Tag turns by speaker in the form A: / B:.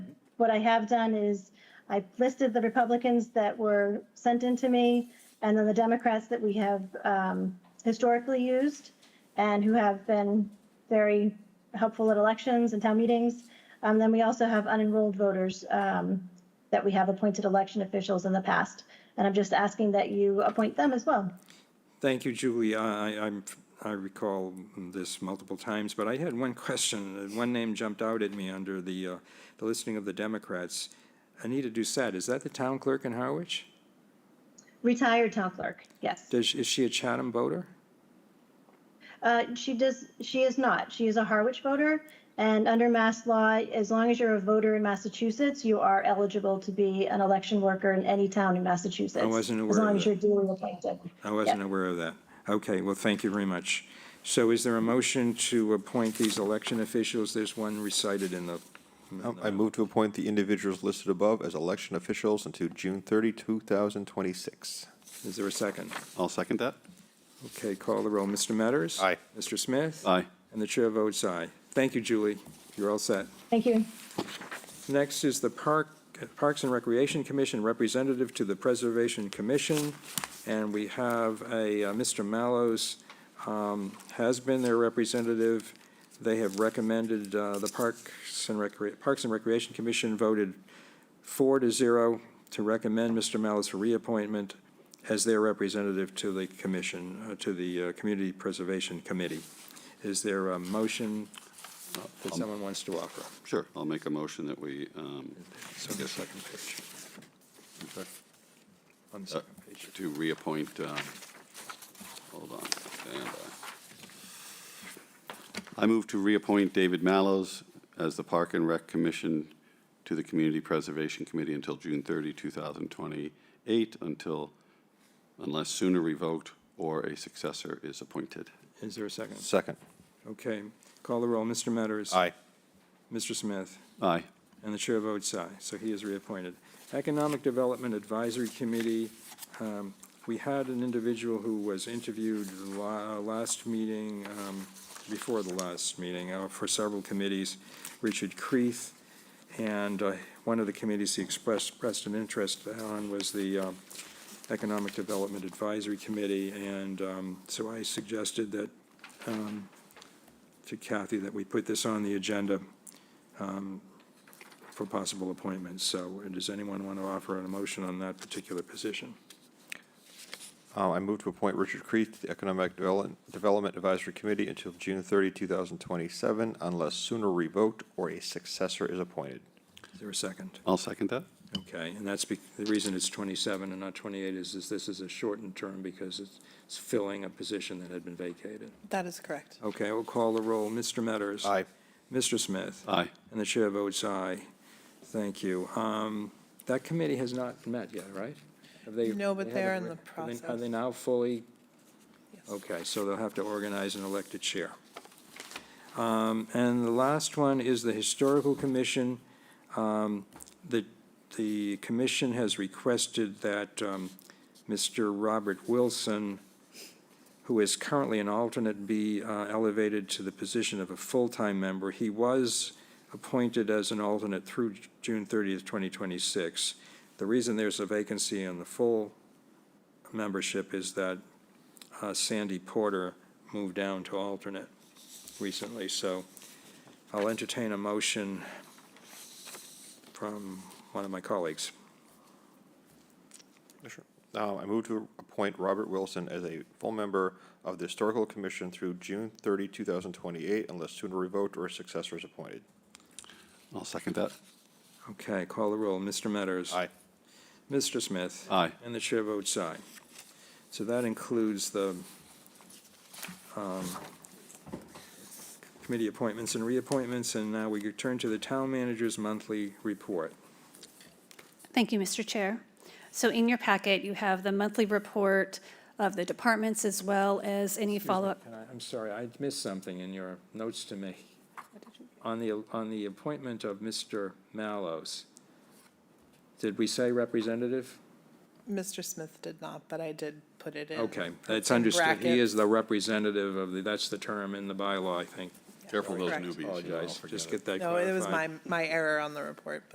A: What I have done is I listed the Republicans that were sent in to me and then the Democrats that we have um, historically used and who have been very helpful at elections and town meetings. Um, Then we also have unenrolled voters um, that we have appointed election officials in the past. And I'm just asking that you appoint them as well.
B: Thank you, Julie. I, I- I'm, I recall this multiple times, but I had one question. One name jumped out at me under the, uh, the listing of the Democrats. Anita Doucette, is that the town clerk in Harwich?
A: Retired town clerk, yes.
B: Does, is she a Chatham voter?
A: Uh, She does, she is not. She is a Harwich voter. And under mass law, as long as you're a voter in Massachusetts, you are eligible to be an election worker in any town in Massachusetts.
B: wasn't aware
A: As
B: of
A: long as
B: that. Oh.
A: you're duly appointed.
B: I wasn't
A: Yeah.
B: aware of that. Okay, well, thank you very much. So is there a motion to appoint these election officials? There's one recited in the,
C: Um, I move to appoint the individuals listed above as election officials until June 30, 2026.
B: is there a second?
D: I'll second that.
B: Okay, call the roll. Mr. Metters?
D: Aye.
B: Mr. Smith?
D: Aye.
B: And the chair votes aye. Thank you, Julie. You're all set.
A: Thank you.
B: Next is the Park, Parks and Recreation Commission Representative to the Preservation Commission, and we have a, uh, Mr. Mallows um, has been their representative. They have recommended, uh, the Parks and Recre, Parks and Recreation Commission voted four to zero to recommend Mr. Mallows for reappointment as their representative to the commission, uh, to the uh, Community Preservation Committee. Is there a motion that someone wants to offer?
D: Um, Sure. I'll make a motion that we, um,
B: So the second page. On the
D: uh,
B: second page.
D: to reappoint, uh, hold on. stand by. I move to reappoint David Mallows as the Park and Rec Commission to the Community Preservation Committee until June 30, 2028, until, unless sooner revoked or a successor is appointed.
B: Is there a second?
C: Second.
B: Okay. Call the roll. Mr. Metters. Mr. Smith.
D: Aye.
B: And the chair votes aye, so he is reappointed. Economic Development Advisory Committee, um, we had an individual who was interviewed la- uh, last meeting, um, before the last meeting, uh, for several committees, Richard Creeth, and uh, one of the committees he expressed, expressed an interest on was the um, Economic Development Advisory Committee, and um, so I suggested that, um, to Kathy, that we put this on the agenda um, for possible appointments. So uh, does anyone want to offer an emotion on that particular position?
C: Uh, I move to appoint Richard Creeth to the Economic Develop- Development Advisory Committee until June 30, 2027, unless sooner revoked or a successor is appointed.
B: Is there a second?
D: I'll second that.
B: Okay, and that's, be- the reason it's 27 and not 28 is is this is a shortened term because it's it's filling a position that had been vacated.
E: That is correct.
B: Okay, I will call the roll. Mr. Metters.
C: Aye.
B: Mr. Smith.
D: Aye.
B: And the chair votes aye. Thank you. Um, That committee has not met yet, right? Have they-
E: No, but
B: they
E: they're
B: haven't re-
E: in the
B: are they- Are
E: process.
B: they now fully?
E: Yes.
B: Okay, so they'll have to organize an elected chair. Um, And the last one is the Historical Commission. Um, The, the commission has requested that um, Mr. Robert Wilson, who is currently an alternate, be uh, elevated to the position of a full-time member. He was appointed as an alternate through June 30th, 2026. The reason there's a vacancy on the full membership is that uh, Sandy Porter moved down to alternate recently, so I'll entertain a motion from one of my colleagues.
C: Uh, I move to appoint Robert Wilson as a full member of the Historical Commission through June 30, 2028, unless sooner revoked or a successor is appointed.
D: I'll second that.
B: Okay, call the roll. Mr. Metters.
C: Aye.
B: Mr. Smith.
D: Aye.
B: And the chair votes aye. So that includes the um, committee appointments and reappointments, and now we turn to the town manager's monthly report.
F: Thank you, Mr. Chair. So in your packet, you have the monthly report of the departments as well as any follow-up.
B: Can I- I'm sorry, I missed something in your notes to me. On the, on the appointment of Mr. Mallows, did we say representative?
E: Mr. Smith did not, but I did put it in.
B: Okay, that's
E: in
B: understood. He is
E: brackets.
B: the representative of the, that's the term in the bylaw, I think.
D: Careful those
E: Correct.
D: newbies. you know.
B: Apologize, just get that
E: No,
B: clarified.
E: it was my, my error on the report.